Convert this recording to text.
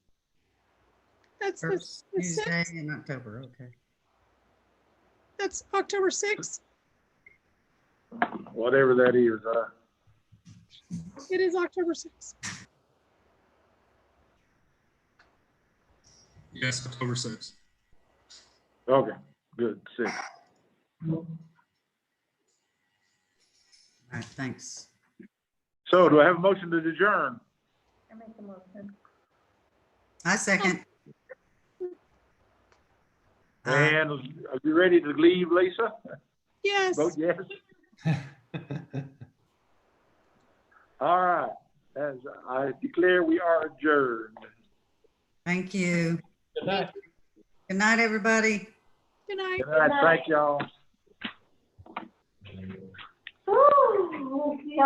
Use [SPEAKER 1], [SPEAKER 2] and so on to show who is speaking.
[SPEAKER 1] That's, the
[SPEAKER 2] First
[SPEAKER 1] the
[SPEAKER 2] Tuesday
[SPEAKER 1] sixth.
[SPEAKER 2] in October, okay.
[SPEAKER 1] That's October sixth.
[SPEAKER 3] whatever that is. Uh,
[SPEAKER 1] It is October sixth.
[SPEAKER 4] Yes, October 6th.
[SPEAKER 3] okay, good, six.
[SPEAKER 2] All right, thanks.
[SPEAKER 3] So do I have a motion to adjourn?
[SPEAKER 5] I make the motion.
[SPEAKER 2] I second. Uh,
[SPEAKER 3] And are you ready to leave, Lisa?
[SPEAKER 1] Yes.
[SPEAKER 3] Vote yes. All right, as I declare, we are adjourned.
[SPEAKER 2] Thank you. Good night, everybody.
[SPEAKER 1] Good night.
[SPEAKER 3] Good night, thank y'all.